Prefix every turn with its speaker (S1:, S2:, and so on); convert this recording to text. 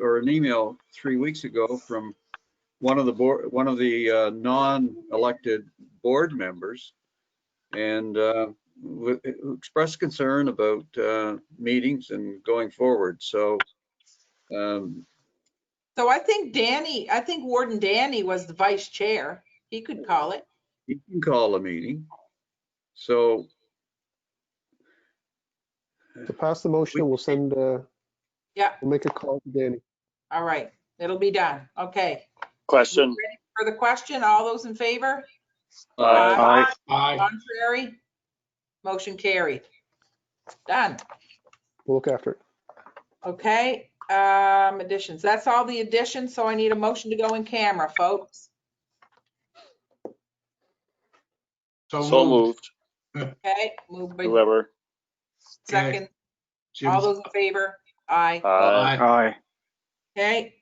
S1: or an email three weeks ago from one of the board, one of the uh, non-elected board members and uh, w- who expressed concern about uh, meetings and going forward. So um,
S2: So I think Danny, I think Warden Danny was the vice chair. He could call it.
S1: you can call a meeting. So
S3: To pass the motion, we'll send, uh,
S2: Yeah.
S3: we'll make a call to Danny.
S2: All right, it'll be done. Okay.
S4: Question.
S2: Ready For the question, all those in favor?
S1: uh,
S4: Aye.
S2: Contrary? Motion carried. Done.
S3: We'll look after it.
S2: Okay, um, additions. That's all the additions, so I need a motion to go in camera, folks.
S4: So moved,
S2: Okay, move by
S4: whoever.
S2: second.
S5: Jim,
S2: All those in favor? Aye.
S4: Aye.
S5: Aye.
S2: Okay,